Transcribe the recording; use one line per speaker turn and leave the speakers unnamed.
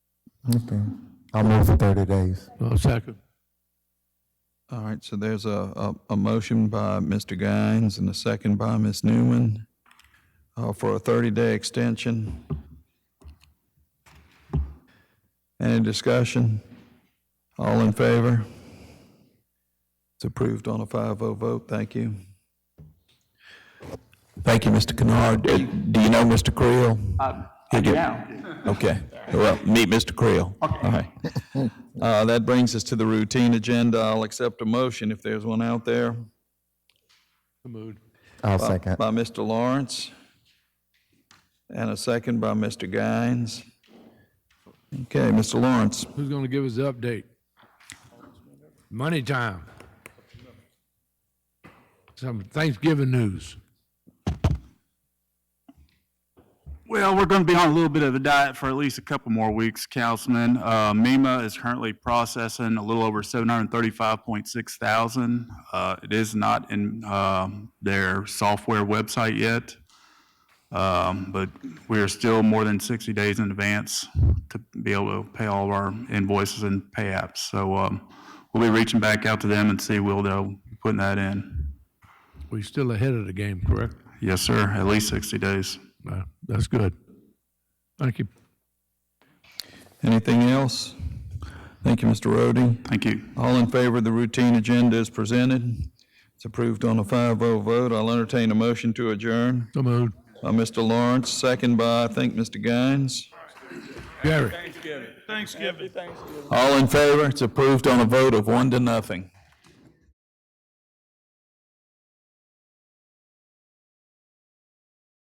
Okay. I'll move for 30 days.
I'll second.
All right, so there's a, a, a motion by Mr. Gaines and a second by Ms. Newman uh, for a 30-day extension. Any discussion? All in favor? It's approved on a 5-0 vote, thank you. Thank you, Mr. Kennard. Do do you know Mr. Creel?
Uh, yeah.
Okay, well, meet Mr. Creel. Okay. Uh, that brings us to the routine agenda. I'll accept a motion if there's one out there.
So moved.
I'll second.
By Mr. Lawrence, and a second by Mr. Gaines. Okay, Mr. Lawrence,
Who's going to give us the update? Money time. Some Thanksgiving news.
Well, we're going to be on a little bit of a diet for at least a couple more weeks, Councilman. Uh, MEMA is currently processing a little over 735.6 thousand. Uh, it is not in um, their software website yet, um, but we are still more than 60 days in advance to be able to pay all of our invoices and pay apps. So um, we'll be reaching back out to them and see will they'll be putting that in.
We're still ahead of the game, correct?
Yes, sir. At least 60 days.
Uh, That's good. Thank you.
anything else? Thank you, Mr. Rhodey.
Thank you.
All in favor of the routine agenda is presented. It's approved on a 5-0 vote. I'll entertain a motion to adjourn
So moved.
by Mr. Lawrence, second by, I think, Mr. Gaines.
Gary.
All in favor? It's approved on a vote of one to nothing.